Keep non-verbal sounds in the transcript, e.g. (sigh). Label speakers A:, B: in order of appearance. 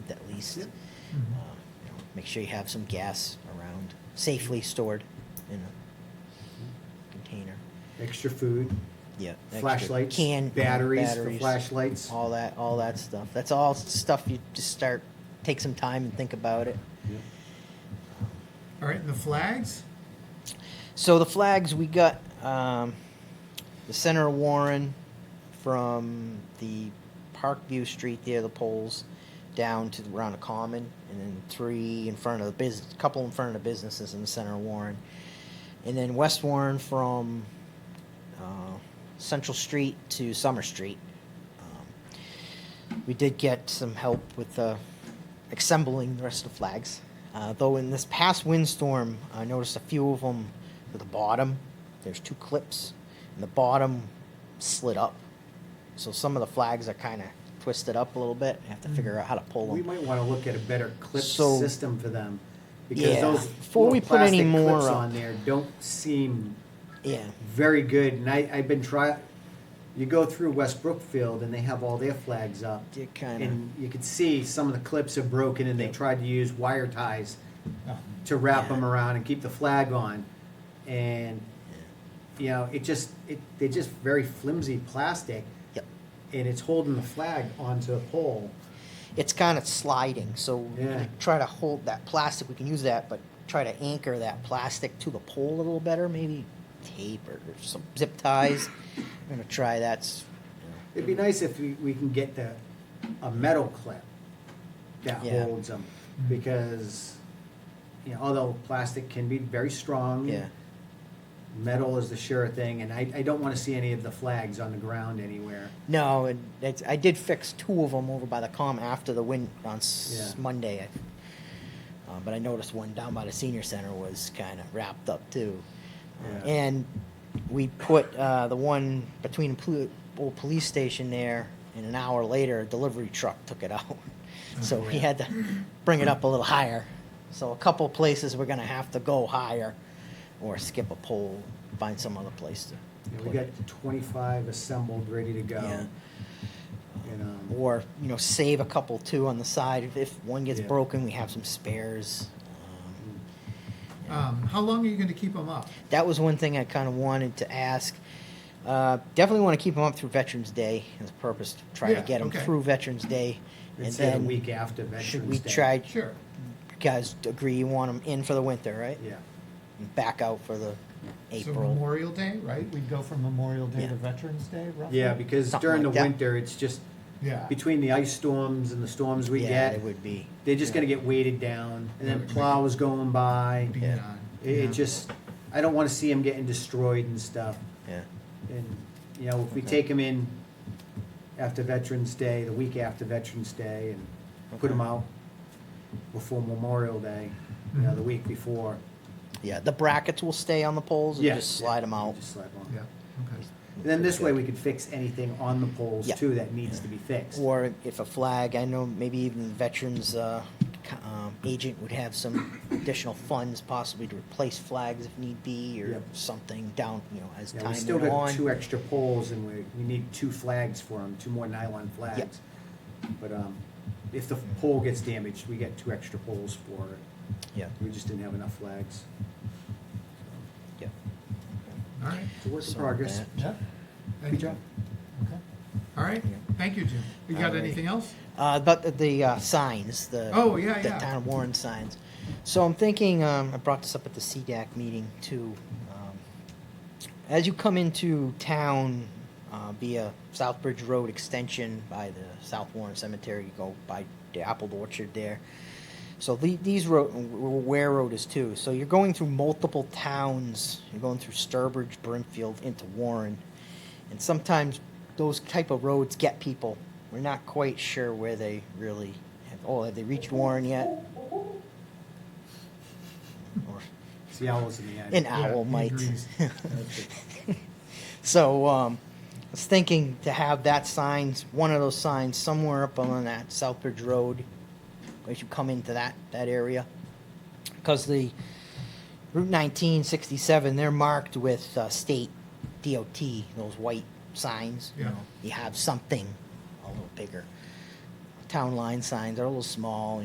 A: least. Uh, you know, Make sure you have some gas around, safely stored in a container.
B: Extra food,
A: Yeah. extra
B: Flashlights,
A: can
B: batteries for
A: batteries,
B: flashlights.
A: All that, all that stuff. That's all stuff you just start, take some time and think about it. Um,
C: All right, and the flags?
A: So the flags we got um, the Senator Warren from the Parkview Street there, the poles down to around the common, and then three in front of the business, couple in front of the businesses in the center of Warren, and then West Warren from uh, Central Street to Summer Street. Um, we did get some help with uh, assembling the rest of the flags. Uh, though in this past windstorm, I noticed a few of them at the bottom. There's two clips, and the bottom slid up. So some of the flags are kind of twisted up a little bit. I have to figure out how to pull them.
B: We might wanna look at a better clip
A: So-
B: system for them.
A: Yeah.
B: Because those
A: Before we
B: little
A: put any
B: plastic
A: more
B: clips
A: up.
B: on there don't seem
A: yeah.
B: very good, and I, I've been try, you go through West Brookfield and they have all their flags up.
A: They're kinda-
B: And you can see some of the clips are broken and they
A: Yep.
B: tried to use wire ties to wrap them
A: Oh, Yeah.
B: around and keep the flag on. And, you know, it just, it, they're just very flimsy plastic
A: Yep.
B: and it's holding the flag onto a pole.
A: It's kind of sliding. So
B: Yeah.
A: try to hold that plastic. We can use that, but try to anchor that plastic to the pole a little better. Maybe tape or some zip ties. I'm gonna try that. s-
B: It'd be nice if we, we can get the, a metal clip that
A: Yeah.
B: holds them, because, you know, although plastic can be very strong.
A: Yeah.
B: Metal is the sure thing, and I, I don't wanna see any of the flags on the ground anywhere.
A: No, and it's, I did fix two of them over by the com after the wind on s-
B: Yeah.
A: Monday. I, uh, but I noticed one down by the senior center was kind of wrapped up too. Uh,
B: Yeah.
A: And we put uh, the one between the pol- old police station there, and an hour later, a delivery truck took it
B: Oh,
A: out. so we had to bring it up a little higher. So a couple places we're gonna have to go higher, or skip a pole, find some other place to.
B: You know, we
A: put
B: got
A: it.
B: twenty-five assembled, ready to
A: Yeah.
B: go. And, um,
A: or you know save a couple too on the side if, if one gets
B: Yeah.
A: broken we have some spares um,
C: Um, how long are you gonna keep them up?
A: that was one thing i kind of wanted to ask uh, definitely want to keep them up through veterans day as a purpose to try
C: Yeah,
A: to get them
C: okay.
A: through veterans day and
B: It's the
A: then
B: week after
A: should
B: Veterans
A: we
B: Day.
A: try you
C: Sure.
A: guys agree you want them in for the winter right
B: Yeah,
A: And back out for the
C: So
A: april
C: Memorial Day, right? We'd go from Memorial Day
A: Yeah.
C: to Veterans Day, roughly?
B: yeah, because
A: Something
B: during the
A: like that.
B: winter, it's just,
C: Yeah.
B: between the ice storms and the storms we
A: yeah
B: get,
A: it would be
B: they're just
C: Yeah.
B: gonna get weighted down, and then
C: Yeah.
B: plows going by.
C: Be
A: Yeah.
C: done.
B: It, it
C: Yeah.
B: just, I don't wanna see them getting destroyed and stuff,
A: yeah
B: and, you know, if we
A: Okay.
B: take them in after Veterans Day, the week after Veterans Day, and put
A: Okay.
B: them out before Memorial Day, you know, the week before.
A: yeah the brackets will stay on the poles and
B: Yeah.
A: just slide them out
B: Just slide 'em out.
C: Yeah, okay.
B: And then this way, we could fix anything on the poles
A: Yeah.
B: too that needs to be fixed.
A: Or if a flag, I know maybe even the veterans uh, c- um, agent would have some additional funds possibly to replace flags if need be or
B: Yep.
A: something down, you know, as
B: Yeah, we
A: time
B: still
A: went
B: got two
A: on.
B: extra poles and we, we need two flags for them, two more nylon flags. But, um, if the pole gets damaged, we get two extra poles for it.
A: Yeah,
B: We just didn't have enough flags.
A: yeah.
C: All right.
B: It's a work in
A: So
B: progress.
A: that-
C: Yeah.
B: Good job.
C: Okay. All right,
A: Yeah.
C: thank you, Jim. You
A: All
C: got
A: right.
C: anything else?
A: Uh, But the- the uh, signs, the.
C: Oh, yeah,
A: The
C: yeah.
A: town of Warren signs. So I'm thinking, um, I brought this up at the CDAC meeting too. um, As you come into town uh, via Southbridge Road Extension by the South Warren Cemetery, you go by the apple orchard there. So the, these road, Ware Road is too. So you're going through multiple towns. You're going through Sturbridge, Brimfield, into Warren, and sometimes those type of roads get people. We're not quite sure where they really have. Oh, have they reached Warren yet? Or
B: It's the owls in the
A: an
B: attic.
C: Yeah,
A: owl
C: he
A: might. (laughs)
C: agrees.
A: So um, I was thinking to have that sign, one of those signs, somewhere up on that Southbridge Road, as you come into that that area, because the Route 1967 they're marked with uh, state DOT those white signs.
C: Yeah.
A: You have something a little bigger. Town line signs are a little small.